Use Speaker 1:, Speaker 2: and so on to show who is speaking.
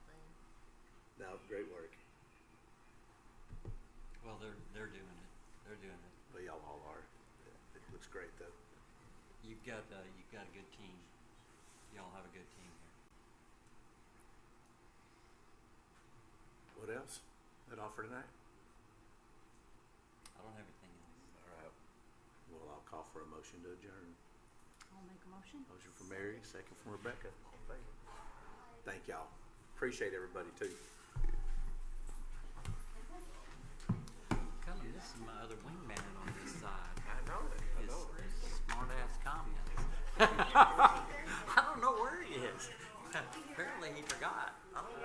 Speaker 1: great though.
Speaker 2: You've got, uh, you've got a good team. Y'all have a good team here.
Speaker 1: What else? That offer tonight?
Speaker 2: I don't have anything else.
Speaker 1: All right. Well, I'll call for a motion to adjourn.
Speaker 3: I'll make a motion.
Speaker 1: Motion from Mary, second from Rebecca. All in favor? Thank y'all. Appreciate everybody too.
Speaker 2: Colin, this is my other wingman on this side.
Speaker 4: I know it. I
Speaker 2: His
Speaker 4: know it.
Speaker 2: smart ass comments.